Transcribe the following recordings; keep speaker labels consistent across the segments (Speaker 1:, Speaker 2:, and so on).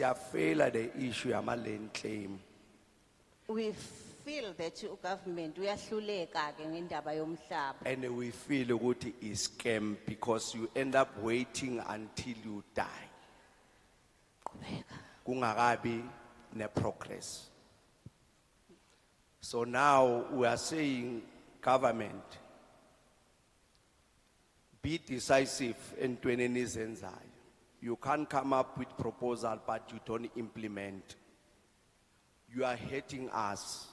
Speaker 1: siyafela the issue yama land claim
Speaker 2: We feel that you government uyahluleka ke ngendaba yomhlaba.
Speaker 1: and we feel ukuthi is scam because you end up waiting until you die
Speaker 2: Qhubeka.
Speaker 1: kungakabi ne progress so now we are saying government be decisive entweni nizenzayo you can't come up with proposal but you don't implement you are hurting us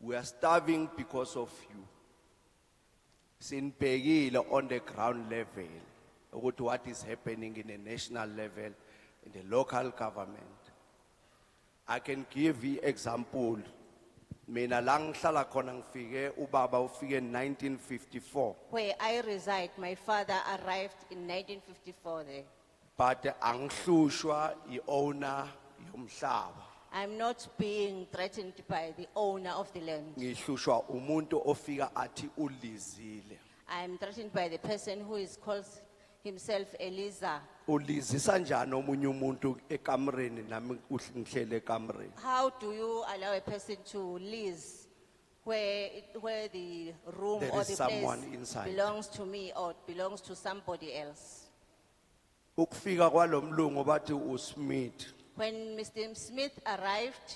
Speaker 1: we are starving because of you sinibhekile on the ground level ukuthi what is happening in the national level in the local government i can give you example mina la ngihlala khona ngifike ubaba ufike 1954
Speaker 2: Where I reside, my father arrived in nineteen fifty-four there.
Speaker 1: but angihlushwa iowner yomhlaba
Speaker 2: I'm not being threatened by the owner of the land.
Speaker 1: ngihlushwa umuntu ofika athi ulizile
Speaker 2: I'm threatened by the person who is calls himself Eliza.
Speaker 1: ulizisa njani omunye umuntu ekamreni nami uhl- ngihlele ekamreni
Speaker 2: How do you allow a person to lease where, it- where the room
Speaker 1: There
Speaker 2: or
Speaker 1: is
Speaker 2: the
Speaker 1: someone
Speaker 2: place
Speaker 1: inside.
Speaker 2: belongs to me or belongs to somebody else?
Speaker 1: ukufika kwalomlungu bathi uSmith
Speaker 2: When Mr. Smith arrived,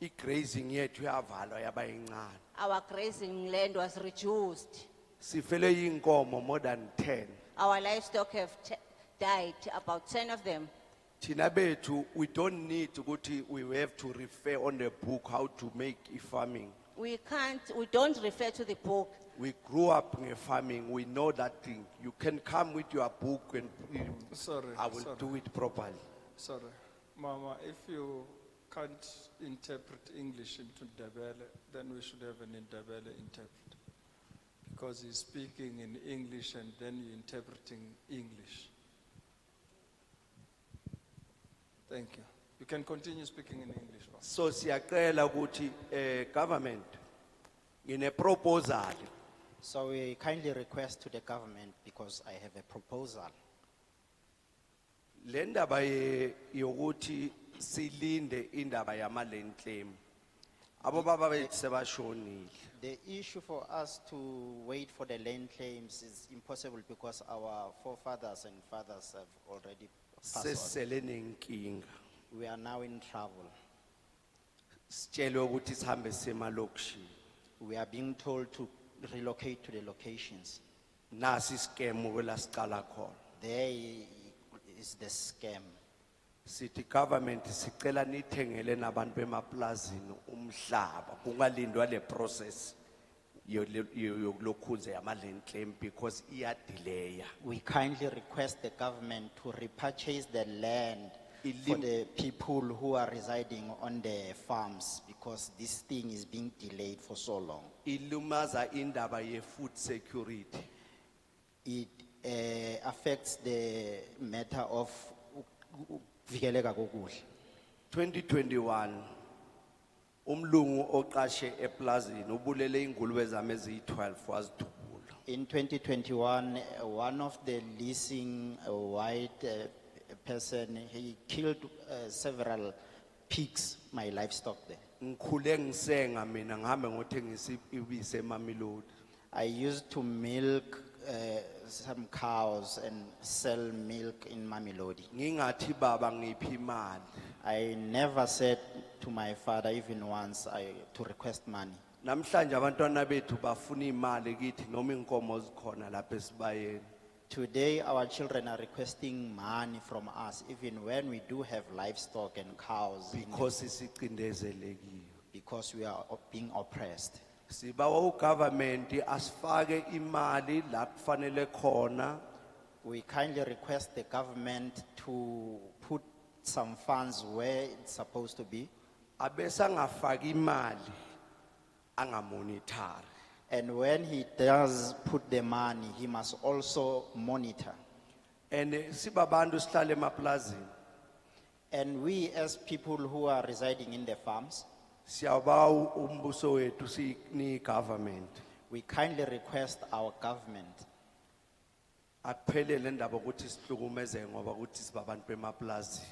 Speaker 1: igrazing yethu yavalwa yaba incane
Speaker 2: our grazing land was reduced.
Speaker 1: sifele inkomo more than 10
Speaker 2: Our livestock have t- died, about ten of them.
Speaker 1: thina bethu we don't need ukuthi we have to refer on the book how to make i farming
Speaker 2: We can't, we don't refer to the book.
Speaker 1: we grew up in farming we know that thing you can come with your book and mm,
Speaker 3: Sorry,
Speaker 1: i will
Speaker 3: sorry.
Speaker 1: do it properly
Speaker 3: Sorry, Mama, if you can't interpret English into Ndebele, then we should have an Ndebele interpreter. Because he's speaking in English and then you're interpreting English. Thank you. You can continue speaking in English. Mama.
Speaker 1: so siyacela ukuthi eh government ngine proposal
Speaker 4: So we kindly request to the government, because I have a proposal,
Speaker 1: lendaba ye- yokuthi silinde indaba yama land claim abo baba bethu sebashonile
Speaker 4: The issue for us to wait for the land claims is impossible because our forefathers and fathers have already passed
Speaker 1: sesele nenkinga
Speaker 4: on. We are now in trouble.
Speaker 1: sitshelwe ukuthi sihambe semalokishini
Speaker 4: We are being told to relocate to the locations.
Speaker 1: nasi scam kwela sicala khona
Speaker 4: There i- is the scam.
Speaker 1: sithi government sicela nithengele nabantu bemaplazini umhlaba kungalindwa le process yole- yo- yokulokhunze yama land claim because iyadilaya
Speaker 4: We kindly request the government to repurchase the land for
Speaker 1: Elim-
Speaker 4: the people who are residing on the farms because this thing is being delayed for so long.
Speaker 1: ilumaza indaba ye food security
Speaker 4: It eh, affects the matter of vikeleka kokudla.
Speaker 1: 2021 umlungu oqashe eplazini ubulele ingulube zami eziyi12 wazidubula
Speaker 4: In 2021, eh, one of the leasing eh, white eh, person, he killed eh, several pigs, my livestock there.
Speaker 1: ngikhule ngisenga mina ngihambe ngothengisa i- ibisi emamilodi
Speaker 4: I used to milk eh, some cows and sell milk in Mamelodi.
Speaker 1: ngingathi baba ngiphi imali
Speaker 4: I never said to my father even once I, to request money.
Speaker 1: namhlanje abantwana bethu bafuna imali kithi noma inkomo zikhona lapha esibayeni
Speaker 4: Today, our children are requesting money from us, even when we do have livestock and cows, in-
Speaker 1: because isicindezelekile
Speaker 4: because we are op- being oppressed.
Speaker 1: sibawa ugovernment asifake imali la kufanele khona
Speaker 4: We kindly request the government to put some funds where it's supposed to be,
Speaker 1: abese angafaki imali angamonitari
Speaker 4: and when he does put the money, he must also monitor.
Speaker 1: and eh, sibabantu sihlale emaplazini
Speaker 4: And we, as people who are residing in the farms,
Speaker 1: siyabawa umbuso wethu sini government
Speaker 4: we kindly request our government
Speaker 1: aphelele ndaba ukuthi sihlukumeze ngoba ukuthi sibabantu bemaplazini